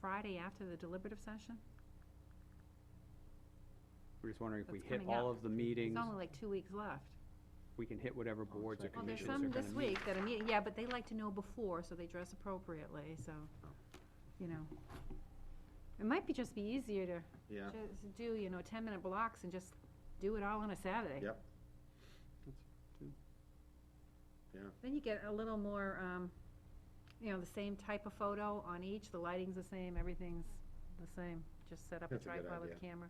Friday after the deliberative session? We're just wondering if we That's hit coming all up. of the It's meetings, only like two weeks left. we can hit whatever Oh, boards or second. Well, there's commissions are some gonna this meet. week that are meeting, yeah, but they like to know before, so they dress appropriately, so, you know. It might be just be easier to Yeah, just do, you know, ten-minute blocks and just do it all on a Saturday. Yep. Two. Yeah. Then you get a little more, um, you know, the same type of photo on each, the lighting's the same, everything's the same, just set up a That's a good tripod with a camera.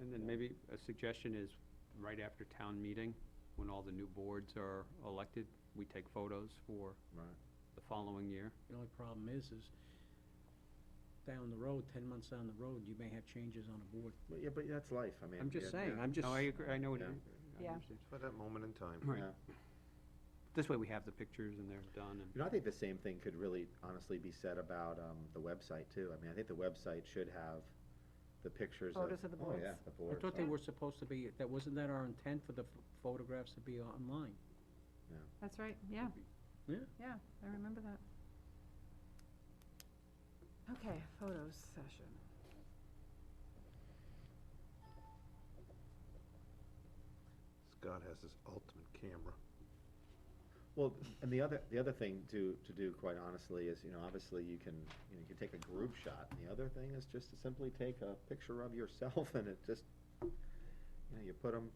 And then maybe a suggestion is, right after town meeting, when all the new boards are elected, we take photos for right. the following year. The only problem is, is down the road, ten months down the road, you may have changes on a board. But, yeah, but that's life, I mean. I'm just yeah, saying, yeah, I'm just, No, I agree, I know what you, I Yeah. understand. For that moment in time. Right. yeah. This way we have the pictures and they're done and. You know, I think the same thing could really honestly be said about, um, the website too. I mean, I think the website should have the pictures of. Photos of the Oh, yeah, boards. the I boards. thought they yeah. were supposed to be, that, wasn't that our intent for the ph- photographs to be online? That's right, yeah. Yeah. Yeah, I remember that. Okay, photos session. Scott has his ultimate camera. Well, and the other, the other thing to, to do, quite honestly, is, you know, obviously you can, you know, you can take a group shot. And the other thing is just to simply take a picture of yourself and it just, you know, you put them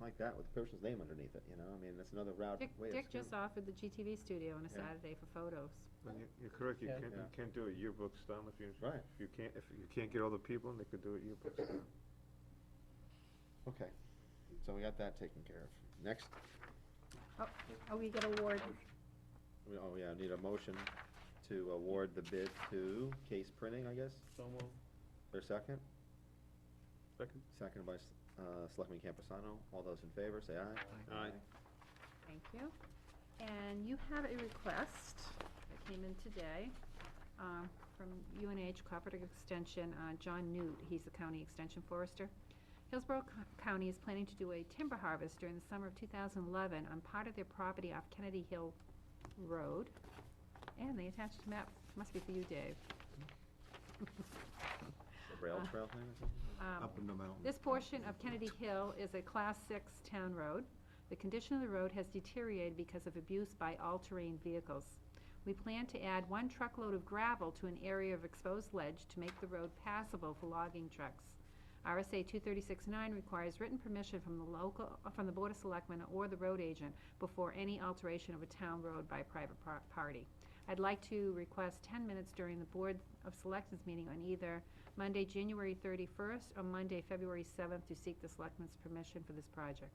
like that with the person's name underneath it, you know? I mean, that's another route, Dick, way of. Dick just offered the GTV studio on a Yeah. Saturday for photos. And you- you're correct, you Yeah. can't, you Yeah. can't do a yearbook style if you, Right. if you can't, if you can't get all the people, in, they could do it yearbook style. Okay, so we got that taken care of. Next, Oh, we get award, we, oh yeah, need a motion to award the bid to Case Printing, I guess, So or second? Second. Second by, S- uh, Selectman Campusano. All those in favor, say aye. Aye. thank you. And you have a request that came in today, um, from UNH Cooperative Extension, uh, John Newt, he's the county extension forester. Hillsborough Co- County is planning to do a timber harvest during the summer of two thousand eleven on part of their property off Kennedy Hill Road. And they attached a map, must be for you, Dave. The Rail trail thing or something? Um, in the mountain. This portion of Kennedy Hill is a Class 6 town road. The condition of the road has deteriorated because of abuse by all-terrain vehicles. We plan to add one truckload of gravel to an area of exposed ledge to make the road passable for logging trucks. RSA 236-9 requires written permission from the local, from the Board of Selectmen or the road agent before any alteration of a town road by a private par- party. I'd like to request 10 minutes during the Board of Selectmen's meeting on either Monday, January 31st, or Monday, February 7th, to seek the selectmen's permission for this project.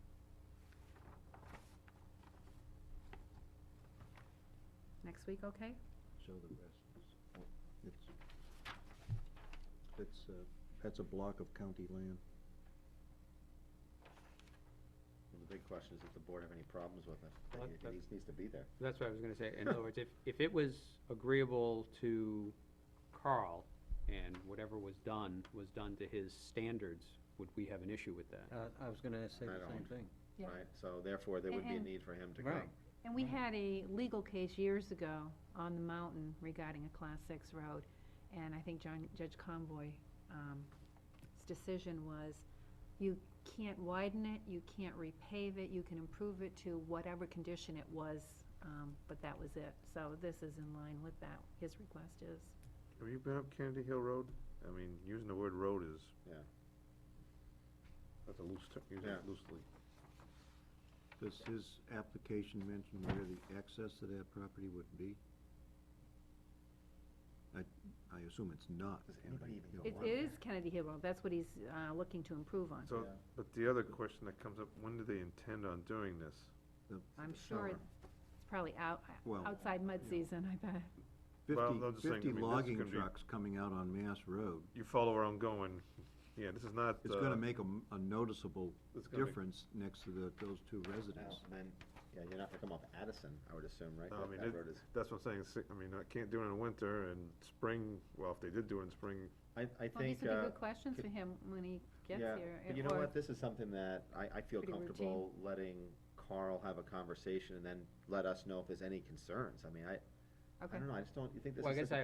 Next week, okay? So the rest is, oh, it's, that's, uh, that's a block of county land. Well, The big question is if the board have any problems with it. Well, It- It that's- needs- needs to be there. That's what I was gonna say. In other words, if, if it was agreeable to Carl and whatever was done was done to his standards, would we have an issue with that? Uh, I was gonna say I the same don't. thing. Yeah. Right, so therefore, there would be a And- need for him to Right. come. And we had a legal case years ago on the mountain regarding a Class 6 road, and I think John, Judge Conboy's decision was, you can't widen it, you can't repave it, you can improve it to whatever condition it was, um, but that was it. So this is in line with that, his request is. Have you been up Kennedy Hill Road? I mean, using the word road is. Yeah. That's a loose, ter- use Yeah. it loosely. Does his application mention where the access to that property would be? I, I assume it's not. Does anybody Kennedy even Hill. go It Wow. it is Kennedy Hill Road, that's what he's uh, looking to improve on. So, Yeah. but the other question that comes up, when do they intend on doing this? I'm sure summer. it's probably out, Well, outside mud season, I bet. Well, Fifty, I'm just saying, I fifty mean, this is logging gonna be- trucks coming out on Mass Road. You follow where I'm going, yeah, this is not. It's uh, gonna make a, m- a noticeable it's gonna make- difference next to the, those two Now, residences. then, yeah, you're not gonna come off Addison, I would assume, right? No, I That- mean, that it- road is- That's what I'm saying, si- I mean, I can't do it in winter and spring, well, if they did do it in spring, I, I Well, these think, would be uh, good questions for him when he gets yeah, here. but and- you know or- what, this is something that I, I feel Pretty comfortable letting Carl have a conversation and then let us know if there's any concerns. I mean, I, I Okay. don't know, I just don't, you think this Well, I is such guess a I-